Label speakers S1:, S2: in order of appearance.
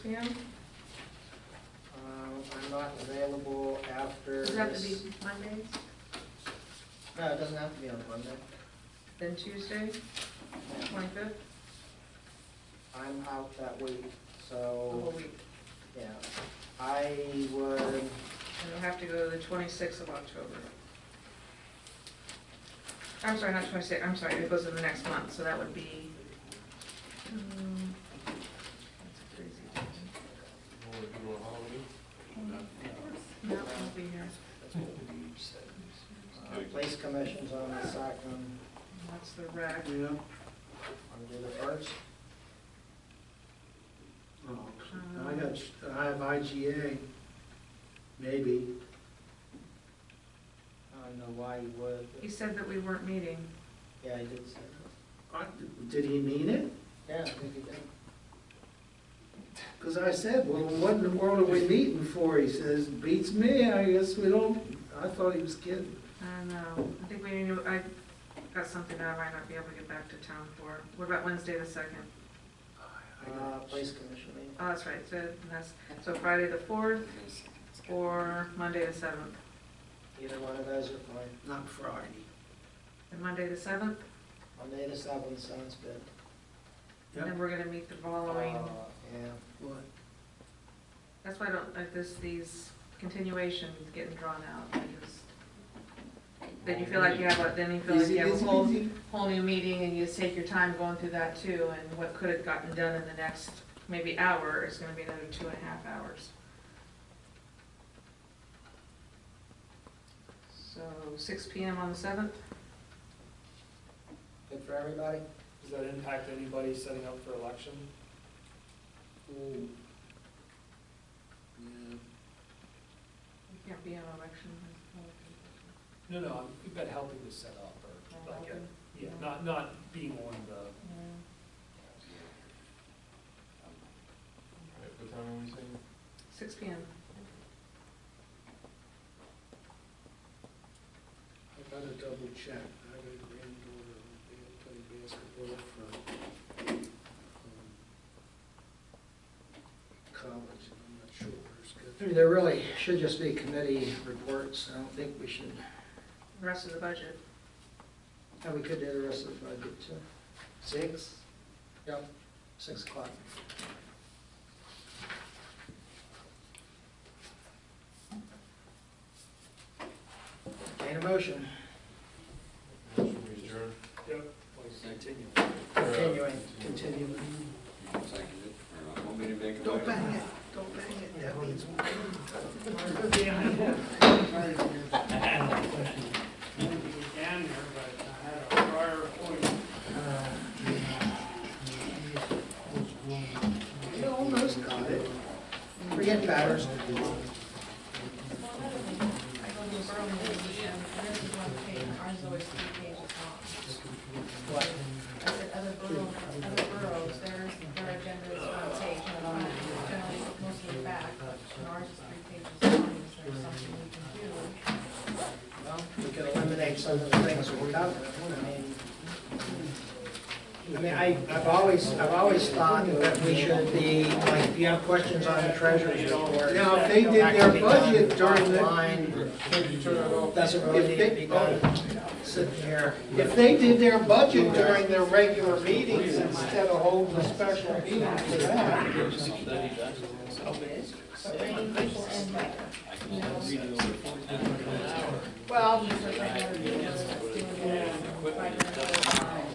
S1: Pam,
S2: Um, I'm not available after
S1: does it have to be
S2: this.
S1: Mondays,
S2: No, it doesn't have to be on Monday.
S1: then Tuesday, twenty-fifth,
S2: I'm out that week,
S1: the whole
S2: so,
S1: Oh, week?
S2: yeah. I would,
S1: And it'll have to go to the twenty-sixth of October. I'm sorry, not twenty-sixth, I'm sorry, it goes in the next month, so that would be, um, that's crazy. No, I'll be here,
S2: uh, place commissions on the Stockman,
S1: that's the rec.
S3: Yeah,
S2: on the first.
S3: oh, I got, I have IGA, maybe.
S2: I don't know why you would,
S1: He
S2: but
S1: said that we weren't meeting,
S2: yeah, I did say that.
S3: I- Did he mean it?
S2: Yeah, I think you did.
S3: Because I said, well, what in the world are we meeting for? He says, beats me, I guess we don't, I thought he was kidding.
S1: I don't know, um, I think we need to, I got something that I might not be able to get back to town for. What about Wednesday the second?
S3: I
S2: Uh,
S3: got-
S2: place commission meeting.
S1: Oh, that's right, so that's, so Friday the fourth or Monday the seventh.
S2: Either one of those are fine.
S3: Not Friday.
S1: And Monday the seventh,
S2: Monday the seventh sounds good.
S1: and then
S3: Yep.
S1: we're gonna meet the following,
S2: Uh, Yeah.
S3: What?
S1: that's why I don't, like this, these continuations getting drawn out. I just- Then you feel like you have, a then you feel like
S3: Easy,
S1: you have a
S3: easy,
S1: whole,
S3: easy.
S1: whole new meeting and you just take your time going through that too. And what could have gotten done in the next maybe hour is gonna be another two and a half hours. So six P M on the seventh?
S2: Good for everybody?
S4: Does that impact anybody setting up for election?
S1: Hmm.
S3: Ooh. Yeah.
S1: You can't be on election.
S4: No, no, I'm- we've been helping to set up
S1: Oh,
S4: or, like,
S1: helping.
S4: yeah, not, not being on the,
S5: What time are we saying?
S1: Six P M.
S3: I gotta double check, I got a granddaughter who they play basketball for, um, college, and I'm not sure where it's good. I mean, there really should just be committee reports, I don't think we should,
S1: The rest of the budget.
S3: and we could do the rest of the budget too. Six? Yep, six o'clock.
S2: Gain a motion,
S5: Motion we adjourn?
S4: like, continue.
S2: continuing.
S3: Continue.
S6: Want me to make a?
S3: Don't
S6: motion?
S3: bang it, don't bang it, that means.
S4: Down there, but I had a prior appointment.
S3: You almost got it. Forget batters.
S1: Mine's always three pages long.
S3: What?
S1: I said other boroughs, other boroughs, theirs, their agenda is one page and on generally mostly back. And ours is three pages long, is there something we can do?
S2: Well, we could eliminate some of the things that we covered, I mean, I mean, I, I've always, I've always thought that we should be, like, if you have questions on the treasurer's report.
S3: Now, if they did
S2: that can be
S3: their budget
S2: done
S3: during the-
S2: online, Doesn't really
S3: If
S2: need
S3: they-
S2: to be done sitting oh, here.
S3: If they did their budget during their regular meetings instead of holding a special meeting for that,
S1: So bringing people in, like, you know,
S2: Well,